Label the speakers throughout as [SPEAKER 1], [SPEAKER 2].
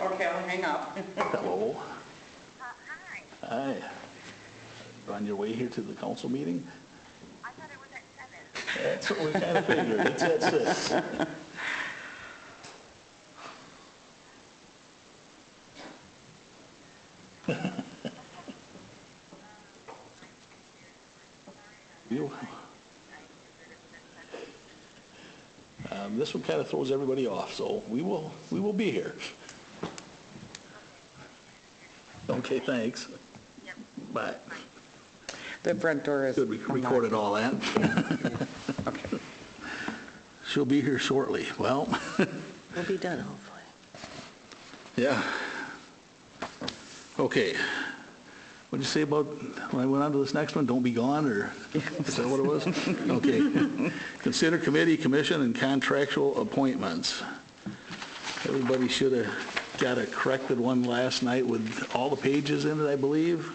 [SPEAKER 1] Okay, I'll hang up.
[SPEAKER 2] Hello.
[SPEAKER 3] Uh, hi.
[SPEAKER 2] Hi. On your way here to the council meeting?
[SPEAKER 3] I thought it was at seven.
[SPEAKER 2] That's what we kind of figured. It's at six. You- Um, This one kind of throws everybody off, so we will, we will be here. Okay, thanks. Bye.
[SPEAKER 1] The front door is.
[SPEAKER 2] Good, we recorded all that.
[SPEAKER 1] Okay.
[SPEAKER 2] She'll be here shortly. Well,
[SPEAKER 4] We'll be done, hopefully.
[SPEAKER 2] yeah. Okay. What'd you say about, when I went on to this next one, don't be gone, or is that what it was? Okay. Consider committee, commission, and contractual appointments. Everybody should have got a corrected one last night with all the pages in it, I believe.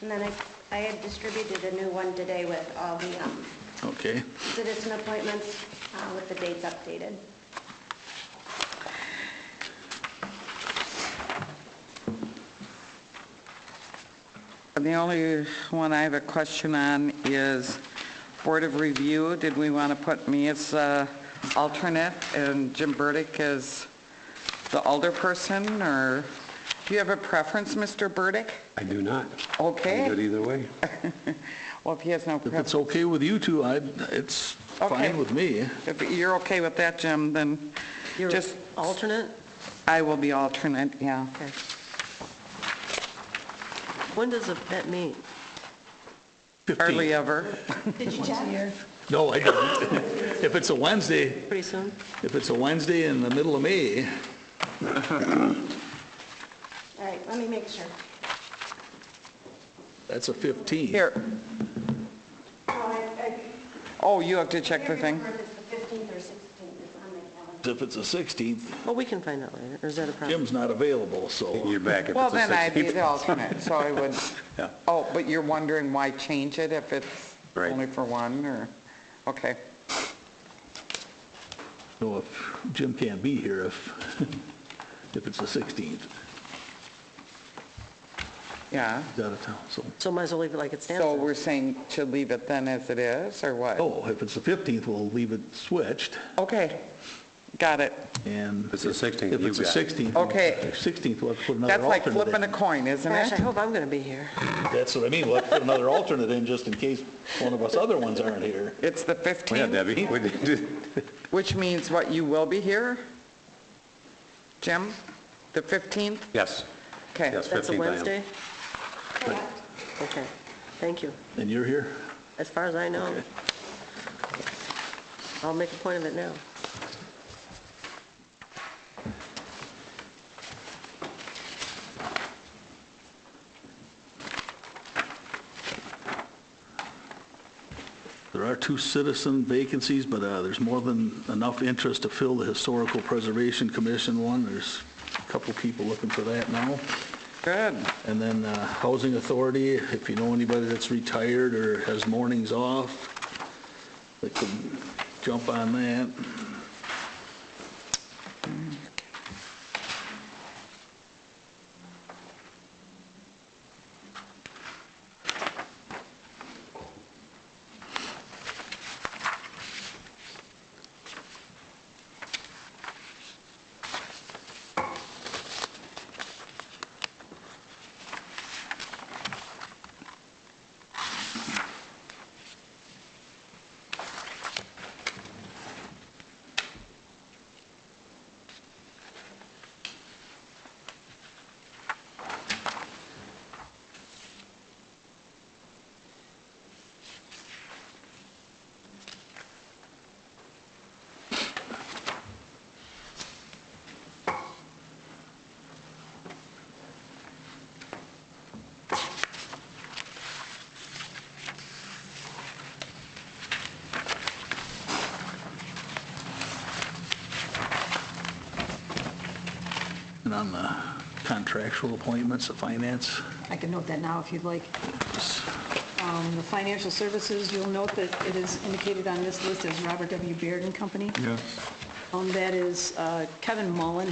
[SPEAKER 5] And then I, I had distributed a new one today with all the um,
[SPEAKER 2] Okay.
[SPEAKER 5] citizen appointments uh, with the dates updated.
[SPEAKER 1] And the only one I have a question on is Board of Review. Did we want to put me as uh, alternate and Jim Burdick as the alder person, or do you have a preference, Mr. Burdick?
[SPEAKER 6] I do not.
[SPEAKER 1] Okay.
[SPEAKER 6] I'm good either way.
[SPEAKER 1] Well, if he has no
[SPEAKER 2] If it's
[SPEAKER 1] preference,
[SPEAKER 2] okay with you two, I, it's
[SPEAKER 1] Okay.
[SPEAKER 2] fine with me.
[SPEAKER 1] if you're okay with that, Jim, then
[SPEAKER 4] You're
[SPEAKER 1] just,
[SPEAKER 4] alternate?
[SPEAKER 1] I will be alternate, yeah.
[SPEAKER 4] Okay. When does that meet?
[SPEAKER 1] Hardly
[SPEAKER 2] 15.
[SPEAKER 1] ever.
[SPEAKER 5] Did you check?
[SPEAKER 2] No, I don't. If it's a Wednesday,
[SPEAKER 4] Pretty soon?
[SPEAKER 2] If it's a Wednesday in the middle of May,
[SPEAKER 5] All right, let me make sure.
[SPEAKER 2] that's a 15.
[SPEAKER 1] Here, oh, you have to check the thing.
[SPEAKER 5] It's the 15th or 16th is on my calendar.
[SPEAKER 2] If it's a 16th,
[SPEAKER 4] Well, we can find out later, or is that a problem?
[SPEAKER 2] Jim's not available, so,
[SPEAKER 6] You're back if it's the
[SPEAKER 1] Well,
[SPEAKER 6] 16th.
[SPEAKER 1] then I'd be the alternate, so I would, oh, but you're wondering why change it if it's
[SPEAKER 6] Right.
[SPEAKER 1] only for one, or, okay.
[SPEAKER 2] no, if Jim can't be here if, if it's the 16th,
[SPEAKER 1] Yeah,
[SPEAKER 2] he's out of town, so.
[SPEAKER 4] So might as well leave it like it stands.
[SPEAKER 1] so
[SPEAKER 4] then.
[SPEAKER 1] we're saying to leave it then as it is, or what?
[SPEAKER 2] Oh, if it's the 15th, we'll leave it switched,
[SPEAKER 1] Okay, got it.
[SPEAKER 2] and.
[SPEAKER 6] It's the 16th,
[SPEAKER 2] If
[SPEAKER 6] you
[SPEAKER 2] it's the
[SPEAKER 6] got it.
[SPEAKER 2] 16th. we'll-
[SPEAKER 1] Okay.
[SPEAKER 2] 16th, we'll have to put another
[SPEAKER 1] That's like
[SPEAKER 2] alternate in.
[SPEAKER 1] flipping a coin, isn't
[SPEAKER 4] Gosh, I
[SPEAKER 1] it?
[SPEAKER 4] hope I'm going to be here.
[SPEAKER 2] That's what I mean, we'll have to put another alternate in just in case one of us other ones aren't here.
[SPEAKER 1] It's the
[SPEAKER 6] Yeah,
[SPEAKER 1] 15th,
[SPEAKER 6] Debbie, what did you do?
[SPEAKER 1] which means what, you will be here? Jim, the 15th?
[SPEAKER 6] yes,
[SPEAKER 1] Okay.
[SPEAKER 6] Yes.
[SPEAKER 4] That's
[SPEAKER 6] 15th I
[SPEAKER 4] a
[SPEAKER 6] am.
[SPEAKER 4] Wednesday?
[SPEAKER 5] Correct.
[SPEAKER 4] Okay, thank you.
[SPEAKER 2] And you're here?
[SPEAKER 4] As far as I know. I'll make a point of it now.
[SPEAKER 2] There are two citizen vacancies, but uh, there's more than enough interest to fill the Historical Preservation Commission one. There's a couple people looking for that now.
[SPEAKER 1] Good,
[SPEAKER 2] And then uh, Housing Authority, if you know anybody that's retired or has mornings off, they could jump on that. And on the contractual appointments, the finance,
[SPEAKER 7] I can note that now if you'd like.
[SPEAKER 2] it's-
[SPEAKER 7] Um, The financial services, you'll note that it is indicated on this list as Robert W. Beard and Company. Yes. That is Um, uh, Kevin Mullen